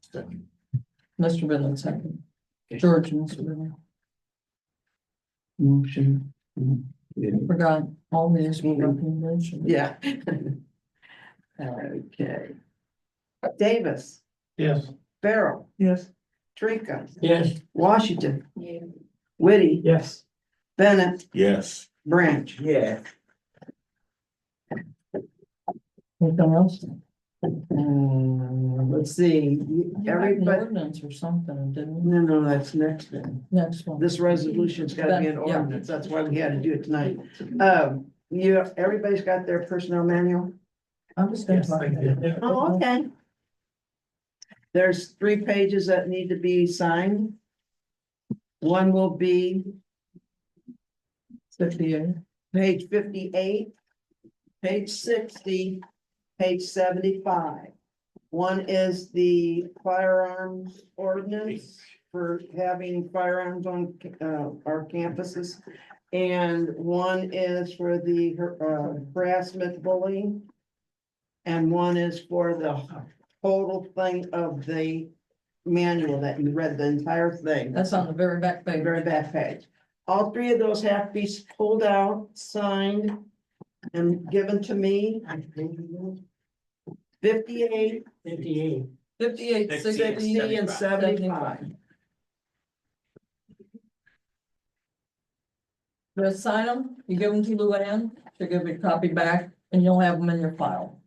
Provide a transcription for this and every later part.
Second. Mr. Bidlin, second. George and Mr. Bidlin. Motion, forgot all these were recommendation. Yeah. Okay. Davis, Yes. Farrell, Yes. Trinka, Yes. Washington. Whitty, Yes. Bennett, Yes, Branch. Yeah. Anything else? Um, Uh, let's see, An everybody, Ordinance or something, didn't, no, no, that's next then. next one. This resolution's gotta be an Yeah. ordinance, that's why we had to do it tonight. Um, you, everybody's got their personnel manual? I'm just gonna Yes, talk. I did. Oh, okay. There's three pages that need to be signed. One will be Fifty-eight. page fifty-eight, page sixty, page seventy-five. One is the firearms ordinance for having firearms on uh, our campuses. And one is for the uh, harassment bullying. And one is for the total thing of the manual that you read the entire thing That's on the very back the page. very back page. All three of those have to be pulled out, signed, and given to me. Fifty-eight, Fifty-eight. Fifty-eight, Sixty and sixty, sixty, and seventy-five. seventy-five. You sign them, you give them to Luann, she'll give you a copy back, and you'll have them in your file.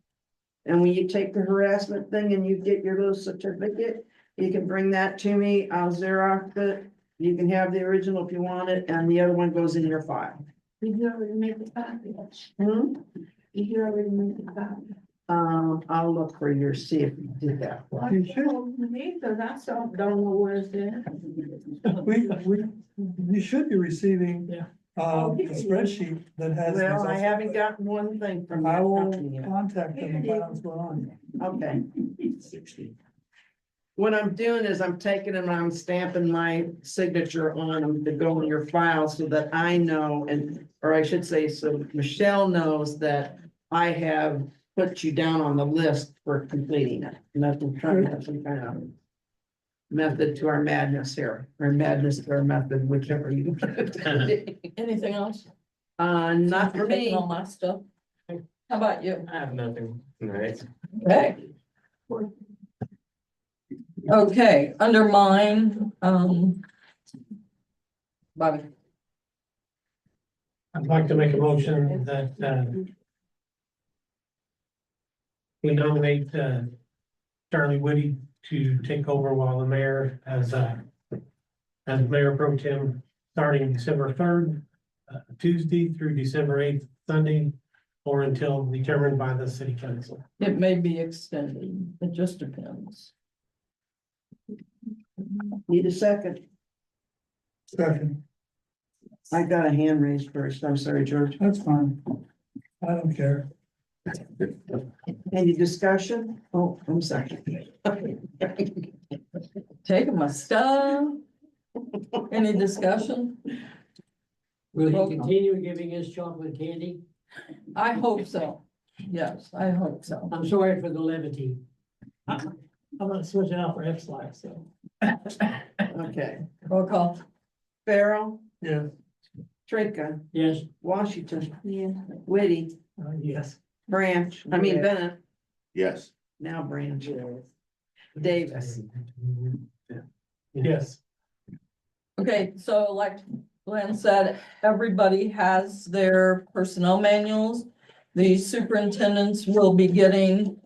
And when you take the harassment thing and you get your little certificate, you can bring that to me. I'll Xerox it. You can have the original if you want it, and the other one goes in your file. Did you already make the copy? Hmm? Did you already make the copy? Um, I'll look for your, see if you did that. one. You should. Because I saw, don't know where it's at. We, we, you should be receiving. Yeah. Um, the spreadsheet that has. these Well, I also, haven't but gotten one thing from that I will company yet. contact them and find out what's going on. Okay. sixty. What I'm doing is I'm taking them, I'm stamping my signature on them to go in your file so that I know and, or I should say, so Michelle knows that I have put you down on the list for completing it. And that's what I'm trying to have some kind of method to our madness here, or madness to our method, whichever you. Anything else? Uh, not for Taking me. All my stuff. How about you? I have nothing. Alright. Okay. Okay, under mine, um. Bobby, I'd like to make a motion that, uh, we nominate, uh, Charlie Woody to take over while the mayor as, uh, as mayor pro tem, starting December third, uh, Tuesday through December eighth, Sunday, or until determined by the city council. it may be extended, it just depends. Need a second. Second, I got a hand raised first. I'm sorry, George. that's fine. I don't care. Any discussion? Oh, I'm sorry. Taking my stuff. Any discussion? Will Well- he continue giving us chocolate candy? I hope so. Yes, I hope so. I'm sorry for the levity. I'm not switching out for F slack, so. Okay. Roll call. Farrell, Yeah. Trinka, Yes, Washington, Yeah. Whitty, Uh, yes. Branch, I mean Yeah. Bennett, Yes, now Branch. Davis. Yes. Okay, so like Glenn said, everybody has their personnel manuals. The superintendents will be getting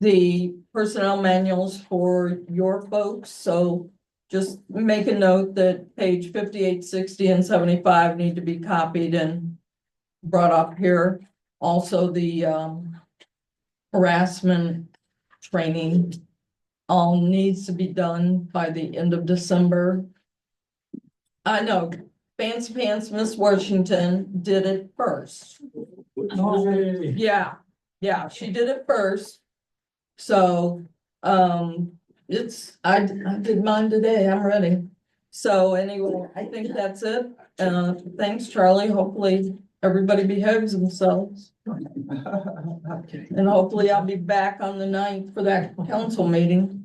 the personnel manuals for your folks, so just make a note that page fifty-eight, sixty, and seventy-five need to be copied and brought up here. Also, the um harassment training all needs to be done by the end of December. I know, Fancy Pants Miss Washington did it first. Yay. Yeah, yeah, she did it first. So, um, it's, I, I did mine today, I'm ready. So anyway, I think that's it. Uh, thanks, Charlie. Hopefully, everybody behaves themselves. And hopefully I'll be back on the ninth for that council meeting.